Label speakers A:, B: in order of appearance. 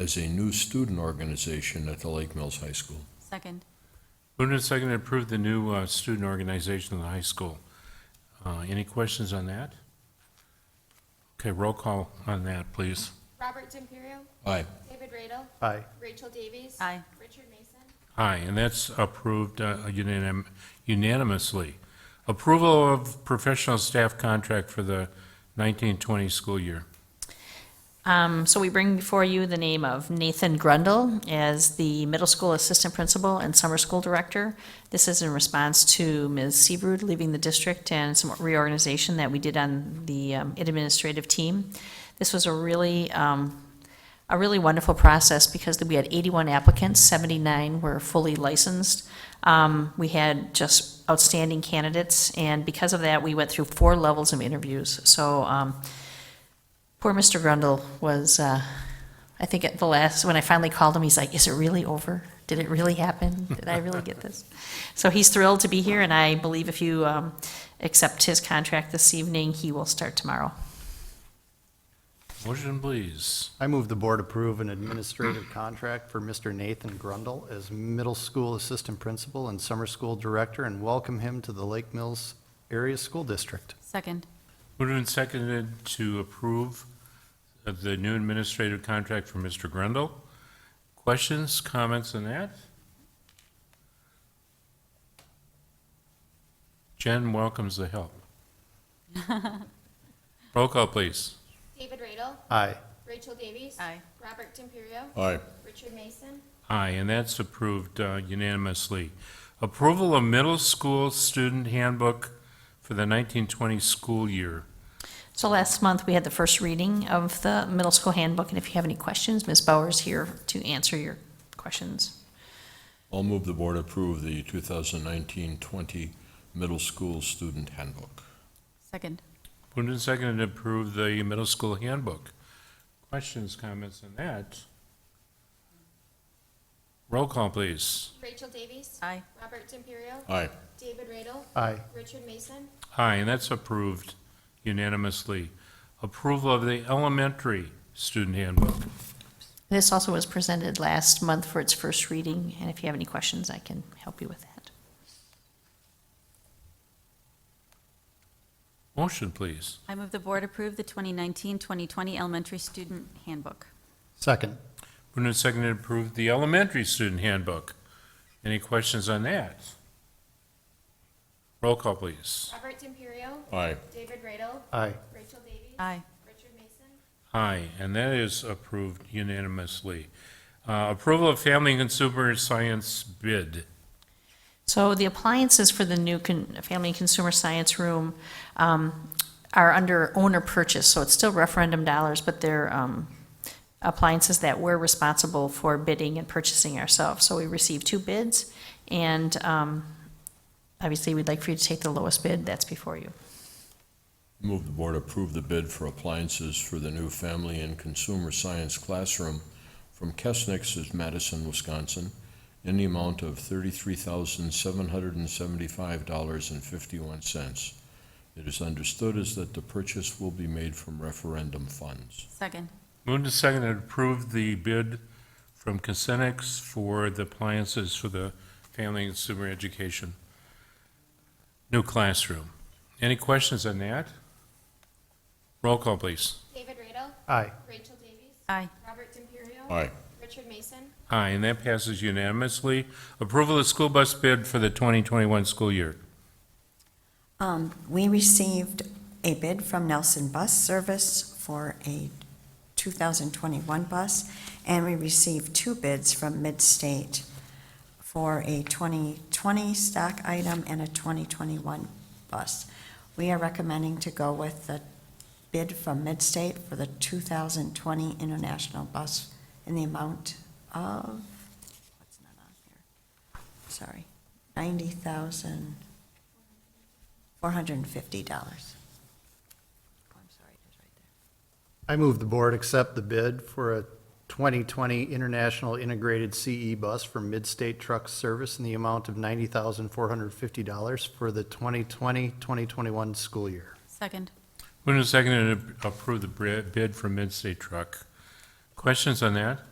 A: as a new student organization at the Lake Mills High School.
B: Second.
C: Moved and seconded, to approve the new uh, student organization of the high school. Uh, Any questions on that? Okay, roll call on that, please.
D: Robert D'Imperio,
A: Aye.
D: David Radel,
E: Aye.
D: Rachel Davies.
B: Aye.
D: Richard Mason.
C: Aye, and that's approved uh, unanim- unanimously. Approval of professional staff contract for the 1920 school year.
F: Um, So we bring before you the name of Nathan Grundle as the middle school assistant principal and summer school director. This is in response to Ms. Seabrood leaving the district and some reorganization that we did on the um, administrative team. This was a really, um, a really wonderful process because we had 81 applicants, 79 were fully licensed. Um, We had just outstanding candidates, and because of that, we went through four levels of interviews. So um, Poor Mr. Grundle was, uh, I think at the last, when I finally called him, he's like, is it really over? Did it really happen? Did I really get this? So he's thrilled to be here, and I believe if you um, accept his contract this evening, he will start tomorrow.
C: Motion, please.
E: I move the board approve an administrative contract for Mr. Nathan Grundle as middle school assistant principal and summer school director and welcome him to the Lake Mills Area School District.
B: Second.
C: Moved and seconded to approve of the new administrative contract for Mr. Grundle. Questions, comments on that? Jen welcomes the help. Roll call, please.
D: David Radel,
E: Aye.
D: Rachel Davies. Robert D'Imperio,
A: Aye.
D: Richard Mason.
C: Aye, and that's approved uh, unanimously. Approval of middle school student handbook for the 1920 school year.
F: So last month, we had the first reading of the middle school handbook, and if you have any questions, Ms. Bauer's here to answer your questions.
A: I'll move the board approve the 2019-20 middle school student handbook.
B: Second.
C: Moved and seconded to approve the middle school handbook. Questions, comments on that? Roll call, please.
D: Rachel Davies.
B: Aye.
D: Robert D'Imperio,
A: Aye.
D: David Radel,
E: Aye.
D: Richard Mason.
C: Aye, and that's approved unanimously. Approval of the elementary student handbook.
F: This also was presented last month for its first reading, and if you have any questions, I can help you with that.
C: Motion, please.
B: I move the board approve the 2019-2020 elementary student handbook.
E: Second.
C: Moved and seconded to approve the elementary student handbook. Any questions on that? Roll call, please.
D: Robert D'Imperio,
A: Aye.
D: David Radel,
E: Aye.
D: Rachel Davies.
B: Aye.
D: Richard Mason.
C: Aye, and that is approved unanimously. Uh, Approval of family and consumer science bid.
F: So the appliances for the new con- Family and Consumer Science Room um, are under owner purchase, so it's still referendum dollars, but they're um, appliances that we're responsible for bidding and purchasing ourselves. So we received two bids, and um, obviously, we'd like for you to take the lowest bid, that's before you.
A: Move the board approve the bid for appliances for the new family and consumer science classroom from Kesnick's of Madison, Wisconsin, in the amount of thirty-three thousand, seven hundred and seventy-five dollars and fifty-one cents. It is understood as that the purchase will be made from referendum funds.
B: Second.
C: Moved and seconded to approve the bid from Cosenix for the appliances for the family and consumer education new classroom. Any questions on that? Roll call, please.
D: David Radel,
E: Aye.
D: Rachel Davies.
B: Aye.
D: Robert D'Imperio.
A: Aye.
D: Richard Mason.
C: Aye, and that passes unanimously. Approval of school bus bid for the 2021 school year.
G: Um, We received a bid from Nelson Bus Service for a 2021 bus, and we received two bids from Midstate for a 2020 stock item and a 2021 bus. We are recommending to go with the bid from Midstate for the 2020 International bus in the amount of, what's not on here? Sorry, 90,000. Four hundred and fifty dollars. Oh, I'm sorry, it was right there.
E: I move the board accept the bid for a 2020 International Integrated CE Bus for Midstate Truck Service in the amount of $90,450 for the 2020-2021 school year.
B: Second.
C: Moved and seconded to approve the bri- bid for Midstate Truck. Questions on that?